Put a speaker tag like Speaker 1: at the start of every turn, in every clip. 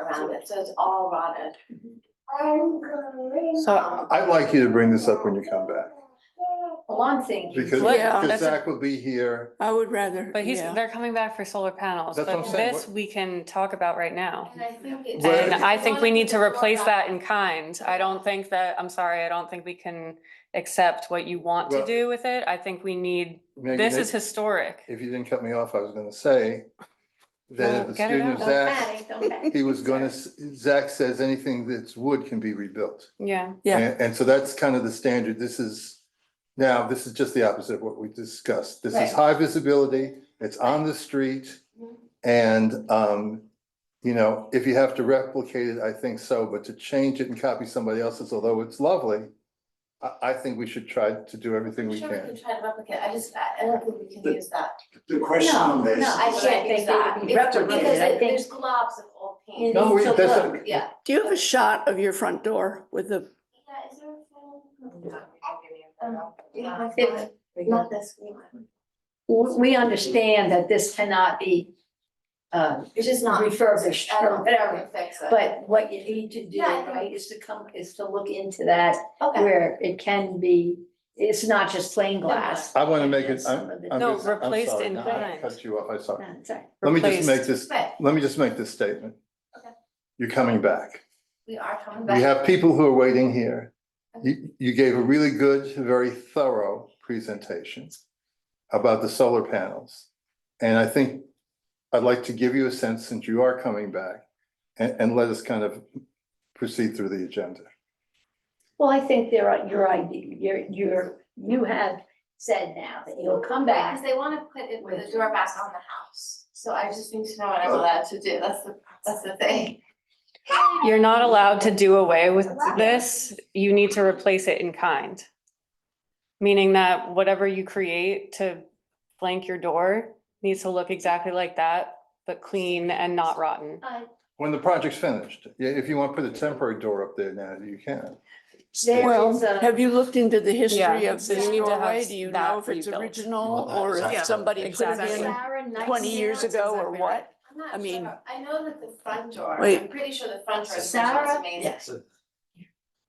Speaker 1: around it, so it's all rotted.
Speaker 2: So,
Speaker 3: I'd like you to bring this up when you come back,
Speaker 1: Well, I'm thinking,
Speaker 3: because,
Speaker 2: Well, yeah,
Speaker 3: because
Speaker 4: that's a-
Speaker 3: Zach will be here.
Speaker 4: I would rather,
Speaker 2: but he's,
Speaker 4: yeah.
Speaker 2: they're coming back for solar panels,
Speaker 3: That's what
Speaker 2: but
Speaker 3: I'm saying,
Speaker 2: this
Speaker 3: what-
Speaker 2: we can talk about right now.
Speaker 1: and I think it's.
Speaker 3: Where-
Speaker 2: And I think we need to replace that in kind. I don't think that, I'm sorry, I don't think we can accept what you want to
Speaker 3: Well-
Speaker 2: do with it. I think we need,
Speaker 3: Maggie,
Speaker 2: this
Speaker 3: if-
Speaker 2: is historic.
Speaker 3: If you didn't cut me off, I was gonna say that
Speaker 2: Well,
Speaker 3: if the
Speaker 2: Oh, get it
Speaker 3: student of
Speaker 2: out.
Speaker 3: Zach,
Speaker 1: Don't panic,
Speaker 3: he was gonna, s- Zach says anything that's wood can be rebuilt.
Speaker 2: Yeah,
Speaker 4: Yeah.
Speaker 3: And, and so that's kind of the standard. This is, now, this is just the opposite of what we discussed. This
Speaker 1: Right.
Speaker 3: is high visibility, it's on the street.
Speaker 1: Mhm.
Speaker 3: And, um, you know, if you have to replicate it, I think so, but to change it and copy somebody else's, although it's lovely, I, I think we should try to do everything
Speaker 1: I'm
Speaker 3: we
Speaker 1: sure we can
Speaker 3: can.
Speaker 1: try to replicate, I just, I I don't think we can use that.
Speaker 5: The question on
Speaker 1: No,
Speaker 5: this.
Speaker 1: no, I
Speaker 5: is-
Speaker 1: can't
Speaker 6: think
Speaker 1: use
Speaker 6: they would
Speaker 1: that,
Speaker 6: be
Speaker 1: It's-
Speaker 6: replicated,
Speaker 1: because
Speaker 6: I
Speaker 1: it-
Speaker 6: think-
Speaker 1: there's globs of old paint.
Speaker 3: No, we-
Speaker 1: So
Speaker 3: that's
Speaker 1: look,
Speaker 3: okay.
Speaker 1: Yeah.
Speaker 4: Do you have a shot of your front door with the,
Speaker 1: Yeah, is there a film?
Speaker 6: Yeah,
Speaker 1: Um,
Speaker 6: it's
Speaker 1: it's
Speaker 6: We
Speaker 1: Not this one,
Speaker 6: we understand that this cannot be uh,
Speaker 1: it's just not.
Speaker 6: refurbished,
Speaker 1: I don't,
Speaker 6: or
Speaker 1: I don't
Speaker 6: whatever.
Speaker 1: fix it.
Speaker 6: But what you need to do,
Speaker 1: Yeah, I think-
Speaker 6: right, is to come, is to look into that
Speaker 1: Okay.
Speaker 6: where it can be, it's not just plain
Speaker 5: Uh,
Speaker 6: glass.
Speaker 3: I wanna make
Speaker 6: And
Speaker 3: it,
Speaker 6: some
Speaker 3: I'm,
Speaker 6: of it-
Speaker 3: I'm
Speaker 2: No,
Speaker 3: just- I'm
Speaker 2: replaced
Speaker 3: sorry.
Speaker 2: in
Speaker 3: No, I
Speaker 2: kind.
Speaker 3: Cut you off, I saw.
Speaker 6: Uh, sorry.
Speaker 3: Let me just
Speaker 2: Replaced.
Speaker 3: make this,
Speaker 1: But
Speaker 3: let me just make this statement.
Speaker 1: Okay.
Speaker 3: You're coming back.
Speaker 1: we are coming back.
Speaker 3: We have people who are waiting here. You, you gave a really good, very thorough presentation about the solar panels. And I think I'd like to give you a sense, since you are coming back, and, and let us kind of proceed through the agenda.
Speaker 6: Well, I think there are, your idea, your, your, you have said now that you'll come back
Speaker 1: Because they wanna put it with the door back on the house, so I just need to know what
Speaker 5: Oh.
Speaker 1: I'm allowed to do, that's the, that's the thing.
Speaker 2: you're not allowed to do away with this. You need to replace it in kind. Meaning that whatever you create to flank your door needs to look exactly like that, but clean and not rotten.
Speaker 3: When the project's finished, yeah, if you want to put a temporary door up there now, you can.
Speaker 6: There
Speaker 4: well,
Speaker 6: is a,
Speaker 4: have you looked into the history
Speaker 2: Yeah.
Speaker 4: of
Speaker 2: You
Speaker 4: this
Speaker 2: need to
Speaker 4: doorway?
Speaker 2: have
Speaker 4: Do you
Speaker 2: that
Speaker 4: know if it's
Speaker 2: rebuilt.
Speaker 4: original
Speaker 5: Well,
Speaker 4: or if
Speaker 5: exactly.
Speaker 4: somebody put it
Speaker 2: Exactly.
Speaker 4: in
Speaker 6: Sarah Knight's
Speaker 4: twenty years
Speaker 6: house.
Speaker 4: ago or what?
Speaker 1: I'm not
Speaker 4: I mean-
Speaker 1: sure. I know that the front door, I'm
Speaker 4: Wait.
Speaker 1: pretty sure the front door is
Speaker 6: Sarah?
Speaker 1: amazing.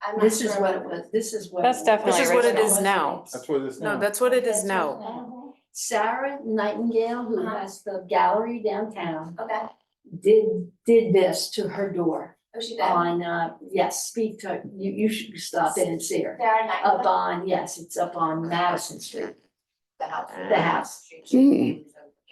Speaker 1: I'm not
Speaker 6: This is
Speaker 1: sure
Speaker 6: what it was, this is what.
Speaker 2: That's
Speaker 6: it was.
Speaker 2: definitely This is what it
Speaker 7: original. is now.
Speaker 3: That's what it is
Speaker 7: No,
Speaker 3: now.
Speaker 7: that's what it is now.
Speaker 6: Sarah Nightingale, who
Speaker 1: Uh-huh.
Speaker 6: has the gallery downtown,
Speaker 1: Okay,
Speaker 6: did, did this to her door
Speaker 1: oh, she did,
Speaker 6: on, uh, yes, speak to, you, you should stop in and see her.
Speaker 1: Sarah Knight.
Speaker 6: Up on, yes, it's up on Madison Street,
Speaker 1: The house.
Speaker 6: the house.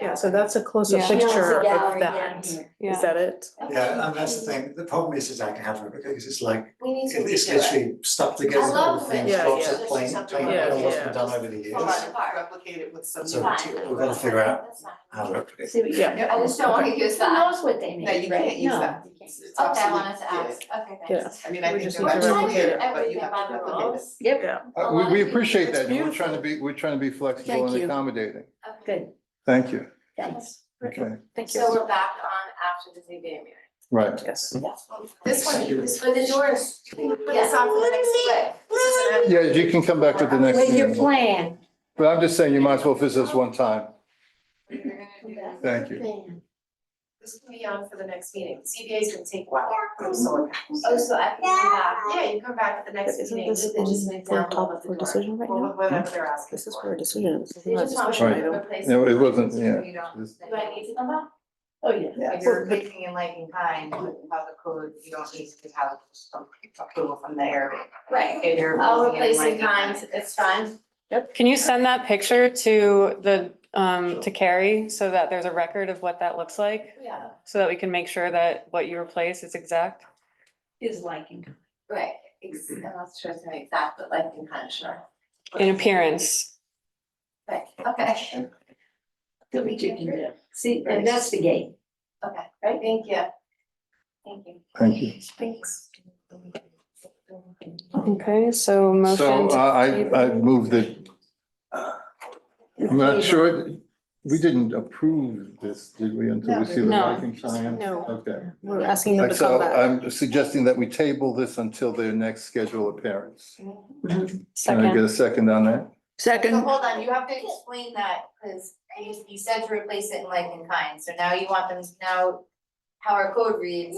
Speaker 7: Yeah, so that's a closer
Speaker 2: Yeah.
Speaker 6: She owns a
Speaker 7: picture
Speaker 6: gallery
Speaker 7: of
Speaker 6: down
Speaker 7: that. Is
Speaker 6: here.
Speaker 2: Yeah.
Speaker 7: that it?
Speaker 1: Okay.
Speaker 5: Yeah, and that's the thing, the problem is, is I can have it, because it's like,
Speaker 1: We need to redo it.
Speaker 5: it's literally stuck together,
Speaker 1: I love
Speaker 5: all the things,
Speaker 7: when it's
Speaker 5: lots
Speaker 7: just
Speaker 5: of plain,
Speaker 1: something
Speaker 5: plain,
Speaker 7: like
Speaker 5: all
Speaker 7: that.
Speaker 5: what's
Speaker 7: Yeah.
Speaker 5: been done over the years.
Speaker 1: Fall apart.
Speaker 7: Replicate it with some.
Speaker 5: So
Speaker 1: Fine.
Speaker 5: we're gonna figure out
Speaker 1: That's fine.
Speaker 5: how to replicate.
Speaker 6: See what you-
Speaker 7: Yeah.
Speaker 1: I just don't wanna use
Speaker 6: Who
Speaker 1: that,
Speaker 6: knows what they made,
Speaker 7: No,
Speaker 6: right?
Speaker 7: you can't use
Speaker 6: No,
Speaker 7: that.
Speaker 6: you can't.
Speaker 1: okay, I wanted to ask, okay, thanks.
Speaker 7: I mean, I
Speaker 2: We
Speaker 7: think.
Speaker 2: just
Speaker 7: they're
Speaker 2: need to
Speaker 7: gonna
Speaker 1: replicate
Speaker 7: replicate
Speaker 1: it,
Speaker 7: it, but you
Speaker 1: everything
Speaker 7: have to
Speaker 1: about the
Speaker 7: replicate
Speaker 1: rules.
Speaker 7: it.
Speaker 6: Yep,
Speaker 7: Yeah.
Speaker 3: Uh,
Speaker 1: A
Speaker 3: we,
Speaker 1: lot
Speaker 3: we
Speaker 1: of-
Speaker 3: appreciate
Speaker 4: It's
Speaker 3: that. and We're trying to
Speaker 4: beautiful.
Speaker 3: be, we're trying to be flexible
Speaker 4: Thank
Speaker 3: and
Speaker 4: you.
Speaker 3: accommodating.
Speaker 1: Okay.
Speaker 6: good,
Speaker 3: Thank you.
Speaker 6: thanks.
Speaker 3: Okay,
Speaker 6: Thank
Speaker 1: So we're back on after the ZBA meeting.
Speaker 3: right.
Speaker 7: Yes.
Speaker 1: This one, this, for the doors, we put this on for the next split.
Speaker 3: Yeah, you can come back to the next
Speaker 6: With your
Speaker 3: meeting.
Speaker 6: plan.
Speaker 3: But I'm just saying you might as well visit us one time. Thank you.
Speaker 6: Plan.
Speaker 8: This can be on for the next meeting. CBA is gonna take a while for the solar panels.
Speaker 1: Oh, so I can come back.
Speaker 8: Yeah, you come back at the next
Speaker 7: Isn't
Speaker 8: meeting.
Speaker 7: this
Speaker 8: This is just an
Speaker 7: on
Speaker 8: example
Speaker 7: top
Speaker 8: of the
Speaker 7: for
Speaker 8: door,
Speaker 7: decision right
Speaker 8: or
Speaker 7: now?
Speaker 8: Whatever they're asking
Speaker 7: This is
Speaker 8: for.
Speaker 7: for a decision. This is
Speaker 1: You
Speaker 7: not a
Speaker 1: just want
Speaker 7: discussion
Speaker 1: me to
Speaker 7: item.
Speaker 1: replace.
Speaker 3: No, it wasn't, yeah.
Speaker 8: You don't-
Speaker 1: Do I need to come back?
Speaker 6: Oh, yeah.
Speaker 8: If you're thinking in like in kind, how the code, you don't need to have some approval from there.
Speaker 1: Right.
Speaker 8: If you're
Speaker 1: I'll
Speaker 8: thinking in
Speaker 1: replace
Speaker 8: like
Speaker 1: in kind, it's fine.
Speaker 2: Can you send that picture to the, um, to Carrie so that there's a record of what that looks like?
Speaker 1: Yeah,
Speaker 2: So that we can make sure that what you replace is exact?
Speaker 6: His liking.
Speaker 1: right. Ex- I'm not sure it's gonna be exact, but like in kind, sure.
Speaker 2: In appearance,
Speaker 1: Right, okay,
Speaker 6: That we can do. See, investigate.
Speaker 1: okay, right, thank you. Thank you.
Speaker 3: Thank you.
Speaker 1: Thanks.
Speaker 2: okay, so
Speaker 3: So
Speaker 2: motion.
Speaker 3: uh,
Speaker 2: to-
Speaker 3: I, I moved that. I'm not sure, we didn't approve this, did we, until we see the
Speaker 2: No.
Speaker 3: lighting plan?
Speaker 7: No.
Speaker 3: Okay.
Speaker 7: We're asking them
Speaker 3: Like,
Speaker 7: to come
Speaker 3: So uh,
Speaker 7: back.
Speaker 3: I'm suggesting that we table this until their next scheduled appearance. Can I get
Speaker 2: Second,
Speaker 3: a second on that?
Speaker 8: So
Speaker 4: Second,
Speaker 8: hold on, you have to explain that, because you, you said to replace it in like in kind, so now you want them, to now how our code reads,